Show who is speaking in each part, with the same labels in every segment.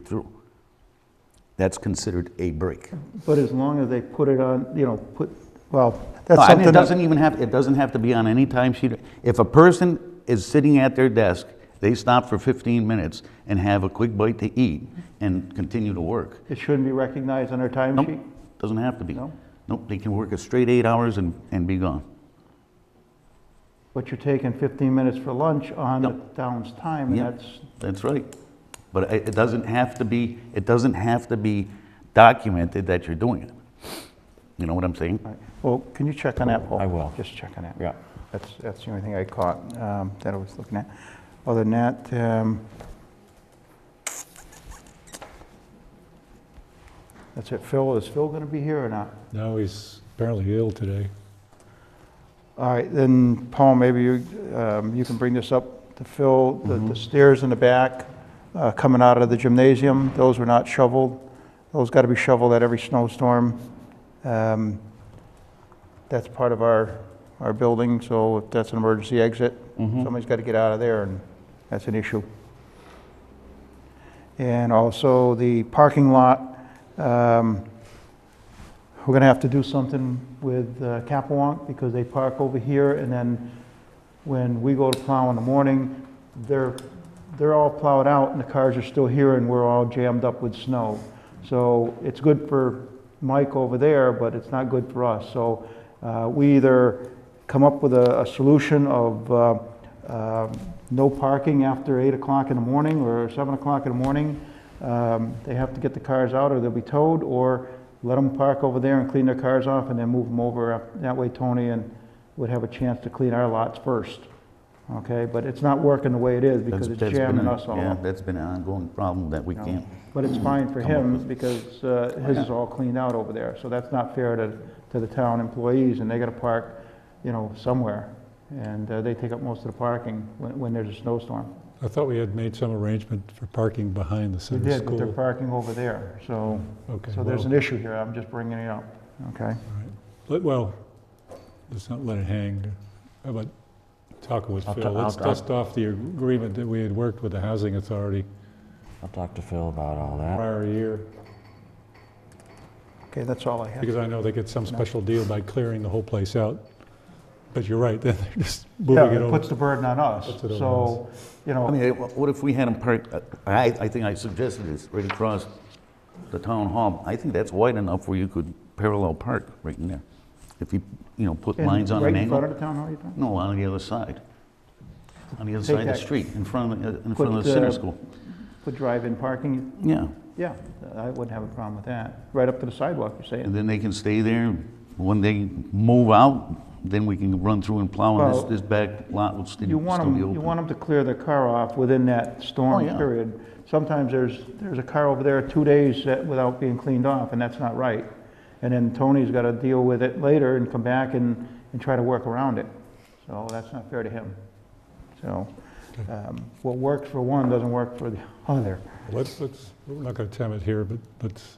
Speaker 1: through. That's considered a break.
Speaker 2: But as long as they put it on, you know, put, well,
Speaker 1: No,
Speaker 2: that's
Speaker 1: I mean,
Speaker 2: something
Speaker 1: it
Speaker 2: that,
Speaker 1: doesn't even have, it doesn't have to be on any timesheet. If a person is sitting at their desk, they stop for 15 minutes and have a quick bite to eat and continue to work.
Speaker 2: it shouldn't be recognized on our
Speaker 1: Nope,
Speaker 2: timesheet?
Speaker 1: doesn't have to be.
Speaker 2: No?
Speaker 1: Nope, they can work a straight eight hours and, and be gone.
Speaker 2: But you're taking 15 minutes for lunch on the town's time, and
Speaker 1: Yeah.
Speaker 2: that's,
Speaker 1: That's right. But it, it doesn't have to be, it doesn't have to be documented that you're doing it. You know what I'm saying?
Speaker 2: all right. well, can you check on that, Paul?
Speaker 3: I will.
Speaker 2: Just check on that.
Speaker 3: Yeah.
Speaker 2: That's, that's the only thing I caught um, that I was looking at. Other than that, um, that's it. Phil, is Phil going to be here or not?
Speaker 4: Now he's apparently ill today.
Speaker 2: All right, then Paul, maybe you, um, you can bring this up to Phil, the the stairs in the back uh, coming out of the gymnasium, those were not shoveled. Those got to be shoveled at every snowstorm. Um, That's part of our, our building, so if that's an emergency exit,
Speaker 1: Mm-hmm.
Speaker 2: somebody's got to get out of there and that's an issue. And also the parking lot, um, we're gonna have to do something with uh, Capewalk because they park over here and then when we go to plow in the morning, they're, they're all plowed out and the cars are still here and we're all jammed up with snow. So it's good for Mike over there, but it's not good for us. So uh, we either come up with a, a solution of uh, um, no parking after eight o'clock in the morning or seven o'clock in the morning. Um, They have to get the cars out or they'll be towed, or let them park over there and clean their cars off and then move them over. Up- That way Tony and would have a chance to clean our lots first, okay? But it's not working the way it is because
Speaker 1: That's-
Speaker 2: it's
Speaker 1: that's been
Speaker 2: jamming
Speaker 1: a-
Speaker 2: us all
Speaker 1: Yeah,
Speaker 2: up.
Speaker 1: that's been an ongoing problem that we
Speaker 2: No.
Speaker 1: can't.
Speaker 2: But it's fine for
Speaker 1: Come up
Speaker 2: him
Speaker 1: with-
Speaker 2: because uh, his is all cleaned out over there, so that's not fair to, to the town employees, and they gotta park, you know, somewhere. And uh, they take up most of the parking when, when there's a snowstorm.
Speaker 4: I thought we had made some arrangement for parking behind the
Speaker 2: We
Speaker 4: center
Speaker 2: did, but they're
Speaker 4: school.
Speaker 2: parking over there, so,
Speaker 4: Okay,
Speaker 2: so there's an
Speaker 4: well-
Speaker 2: issue here, I'm just bringing it up, okay?
Speaker 4: Let- Well, let's not let it hang. How about talking with
Speaker 3: I'll
Speaker 4: Phil?
Speaker 3: ta-
Speaker 4: Let's
Speaker 3: I'll- I'll-
Speaker 4: dust off the agreement that we had worked with the housing authority
Speaker 3: I'll talk to Phil about all that.
Speaker 4: prior year,
Speaker 2: Okay, that's all I have.
Speaker 4: because I know they get some special deal by clearing the whole place out. But you're right, then they're just
Speaker 2: Yeah,
Speaker 4: moving it
Speaker 2: it puts
Speaker 4: over.
Speaker 2: the burden on us,
Speaker 4: Puts it on
Speaker 2: so, you
Speaker 1: I
Speaker 2: know,
Speaker 1: mean, wha- what if we had them park, uh, I, I think I suggested this, right across the town hall. I think that's wide enough where you could parallel park right in there. If you, you know, put
Speaker 2: and
Speaker 1: lines on an
Speaker 2: right in front
Speaker 1: angle.
Speaker 2: of the town hall, you think?
Speaker 1: No, on the other side. On the other
Speaker 2: Take
Speaker 1: side of the
Speaker 2: that-
Speaker 1: street, in front of, the- in front of
Speaker 2: Put,
Speaker 1: the center
Speaker 2: uh,
Speaker 1: school.
Speaker 2: Put drive-in parking,
Speaker 1: Yeah,
Speaker 2: yeah, I wouldn't have a problem with that, right up to the sidewalk, you're saying.
Speaker 1: and then they can stay there. When they move out, then we can run through and plow on this,
Speaker 2: Well,
Speaker 1: this back lot will sti-
Speaker 2: You
Speaker 1: still be
Speaker 2: want them,
Speaker 1: open.
Speaker 2: you want 'em to clear their car off within that
Speaker 1: Oh,
Speaker 2: storm
Speaker 1: yeah.
Speaker 2: period. Sometimes there's, there's a car over there two days that- without being cleaned off, and that's not right. And then Tony's got to deal with it later and come back and, and try to work around it. So that's not fair to him. So, um, what works for one doesn't work for the other.
Speaker 4: Let's, let's, we're not going to time it here, but let's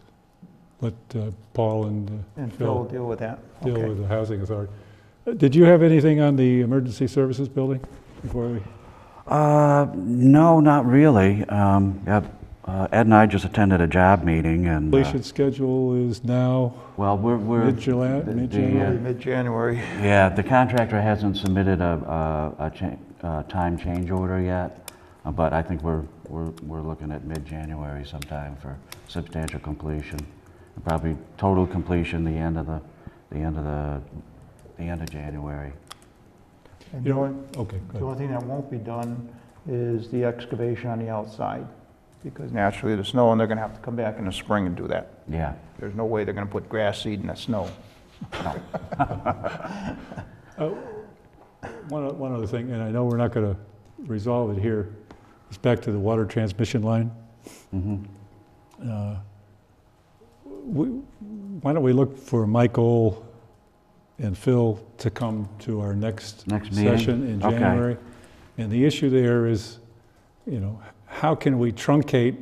Speaker 4: let uh, Paul and uh,
Speaker 2: And Phil will
Speaker 4: Phil
Speaker 2: deal with that.
Speaker 4: deal
Speaker 2: Okay.
Speaker 4: with the housing authority. Uh, Did you have anything on the emergency services building before we?
Speaker 3: Uh, no, not really. Um, yep, uh, Ed and I just attended a job meeting and, uh,
Speaker 4: Completion schedule is now
Speaker 3: well, we're, we're.
Speaker 4: mid-July,
Speaker 3: the- the,
Speaker 4: mid-January?
Speaker 2: Mid-January.
Speaker 3: uh, Yeah, the contractor hasn't submitted a, a, a cha- uh, time change order yet, uh, but I think we're, we're, we're looking at mid-January sometime for substantial completion. Probably total completion the end of the, the end of the, the end of January.
Speaker 2: And
Speaker 4: You
Speaker 2: the
Speaker 4: know,
Speaker 2: only-
Speaker 4: okay,
Speaker 2: the
Speaker 4: good.
Speaker 2: only thing that won't be done is the excavation on the outside, because naturally the snow, and they're going to have to come back in the spring and do that.
Speaker 3: Yeah.
Speaker 2: There's no way they're gonna put grass seed in the snow.
Speaker 4: Uh, One, o- one other thing, and I know we're not going to resolve it here, it's back to the water transmission line.
Speaker 3: Mhm.
Speaker 4: Uh, we- Why don't we look for Michael and Phil to come to our next
Speaker 3: Next meeting?
Speaker 4: session in
Speaker 3: Okay.
Speaker 4: January? And the issue there is, you know, how can we truncate,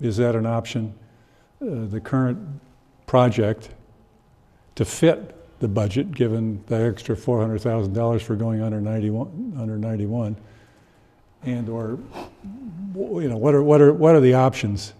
Speaker 4: is that an option, uh, the current project to fit the budget, given the extra $400,000 for going under 91, under 91? And/or, you know, what are, what are, what are the options?